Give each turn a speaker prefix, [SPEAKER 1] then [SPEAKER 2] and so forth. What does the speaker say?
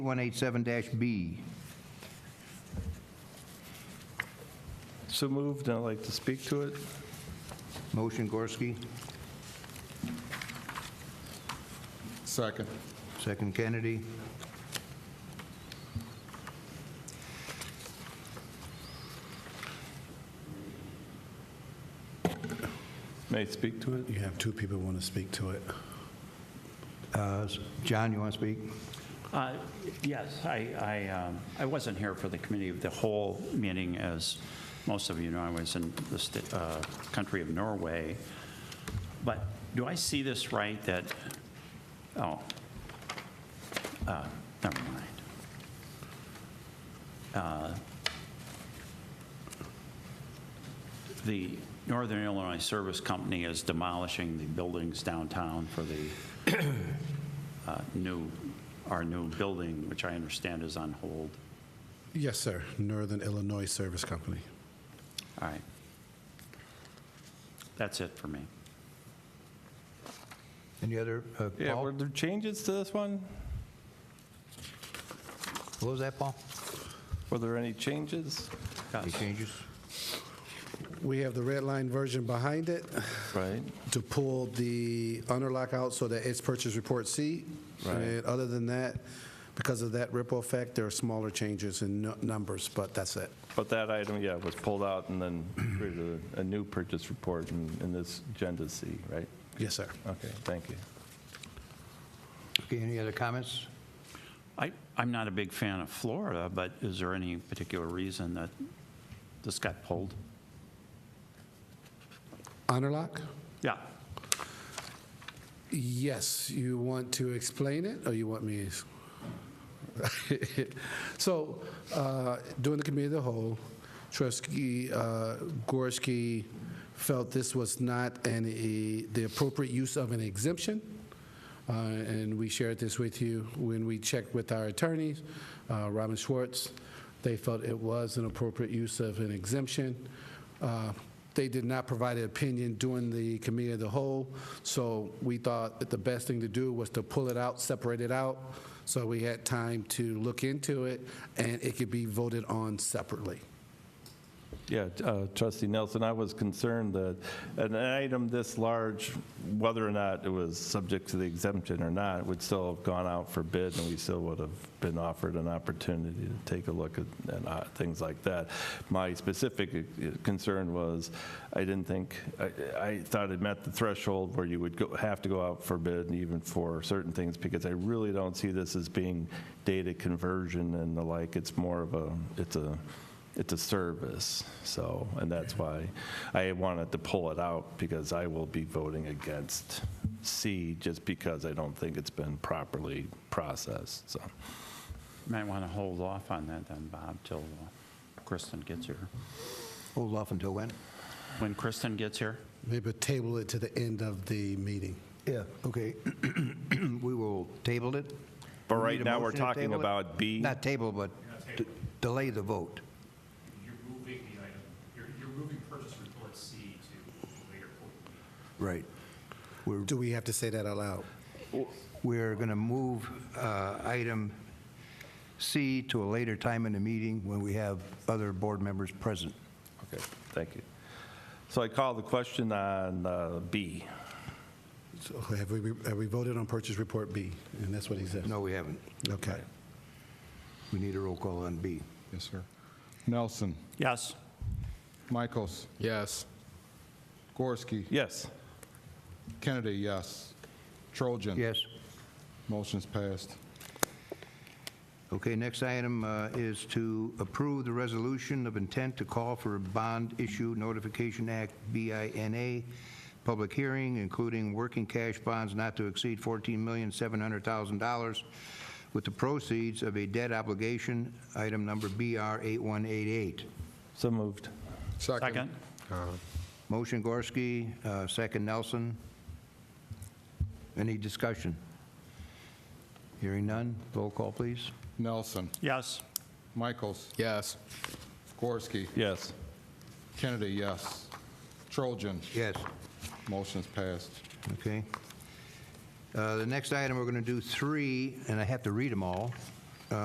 [SPEAKER 1] 187-B.
[SPEAKER 2] So moved, and I'd like to speak to it.
[SPEAKER 1] Motion Gorski,
[SPEAKER 3] Second.
[SPEAKER 1] second Kennedy.
[SPEAKER 2] May I speak to it?
[SPEAKER 4] You have two people want to speak to it.
[SPEAKER 1] Uh, s- John, you want to speak?
[SPEAKER 5] Uh, Yes, I, I, um, I wasn't here for the committee of the whole meeting, as most of you know, I was in the sta- uh, country of Norway. But do I see this right, that, oh, uh, never mind. Uh, The Northern Illinois Service Company is demolishing the buildings downtown for the uh, new, our new building, which I understand is on hold.
[SPEAKER 4] Yes, sir. Northern Illinois Service Company.
[SPEAKER 5] All right. That's it for me.
[SPEAKER 1] Any other, uh,
[SPEAKER 2] Yeah, were
[SPEAKER 1] Paul?
[SPEAKER 2] there changes to this one?
[SPEAKER 1] What was that, Paul?
[SPEAKER 2] Were there any changes?
[SPEAKER 5] Gus?
[SPEAKER 1] Any changes?
[SPEAKER 4] We have the red line version behind it
[SPEAKER 2] Right.
[SPEAKER 4] to pull the underlock out so that it's purchase report C.
[SPEAKER 2] Right.
[SPEAKER 4] And other than that, because of that ripple effect, there are smaller changes in nu- numbers, but that's it.
[SPEAKER 2] But that item, yeah, was pulled out and then created a- a new purchase report in in this Agenda C, right?
[SPEAKER 4] Yes, sir.
[SPEAKER 2] Okay, thank you.
[SPEAKER 1] Okay, any other comments?
[SPEAKER 5] I, I'm not a big fan of Florida, but is there any particular reason that this got pulled?
[SPEAKER 4] Underlock?
[SPEAKER 5] Yeah.
[SPEAKER 4] Yes, you want to explain it, or you want me? So, uh, during the committee of the whole, trustee uh, Gorski felt this was not an, e- the appropriate use of an exemption, uh, and we shared this with you when we checked with our attorneys, uh, Robin Schwartz. They felt it was an appropriate use of an exemption. Uh, They did not provide an opinion during the committee of the whole, so we thought that the best thing to do was to pull it out, separate it out, so we had time to look into it, and it could be voted on separately.
[SPEAKER 2] Yeah, uh, trustee Nelson, I was concerned that an item this large, whether or not it was subject to the exemption or not, would still have gone out for bid, and we still would have been offered an opportunity to take a look at and, uh, things like that. My specific uh, concern was, I didn't think, I- I thought it met the threshold where you would go- have to go out for bid, and even for certain things, because I really don't see this as being data conversion and the like. It's more of a, it's a, it's a service, so, and that's why I wanted to pull it out, because I will be voting against C, just because I don't think it's been properly processed, so.
[SPEAKER 5] Might want to hold off on that then, Bob, till uh, Kristen gets here.
[SPEAKER 1] Hold off until when?
[SPEAKER 5] When Kristen gets here?
[SPEAKER 4] Maybe table it to the end of the meeting.
[SPEAKER 1] Yeah. Okay, we will table it.
[SPEAKER 2] But
[SPEAKER 1] We
[SPEAKER 2] right
[SPEAKER 1] need a
[SPEAKER 2] now, we're
[SPEAKER 1] motion to
[SPEAKER 2] talking
[SPEAKER 1] table it?
[SPEAKER 2] about B.
[SPEAKER 1] Not table, but d- delay the vote.
[SPEAKER 6] You're moving the item, you're, you're moving purchase report C to a later point.
[SPEAKER 1] Right. We're
[SPEAKER 4] Do we have to say that out loud?
[SPEAKER 1] We're going to move uh, item C to a later time in the meeting when we have other board members present.
[SPEAKER 2] Okay, thank you. So I call the question on uh, B.
[SPEAKER 4] So Have we, have we voted on purchase report B? And that's what he said?
[SPEAKER 1] No, we haven't.
[SPEAKER 4] Okay.
[SPEAKER 1] We need a roll call on B.
[SPEAKER 3] Yes, sir. Nelson.
[SPEAKER 5] Yes.
[SPEAKER 3] Michaels. Yes. Gorski.
[SPEAKER 2] Yes,
[SPEAKER 3] Kennedy, yes. Trojan.
[SPEAKER 1] Yes?
[SPEAKER 3] Motion's passed.
[SPEAKER 1] Okay, next item uh, is to approve the resolution of intent to call for a bond issue notification act, BINA, public hearing, including working cash bonds not to exceed $14,700,000 with the proceeds of a debt obligation, item number BR 8188.
[SPEAKER 2] so moved.
[SPEAKER 5] Second?
[SPEAKER 1] Motion Gorski, uh, second Nelson. Any discussion? Hearing none, roll call, please.
[SPEAKER 3] Nelson.
[SPEAKER 5] Yes.
[SPEAKER 3] Michaels.
[SPEAKER 4] Yes.
[SPEAKER 3] Gorski.
[SPEAKER 2] Yes,
[SPEAKER 3] Kennedy, yes. Trojan.
[SPEAKER 1] Yes.
[SPEAKER 3] Motion's passed.
[SPEAKER 1] Okay. Uh, The next item, we're going to do three, and I have to read them all.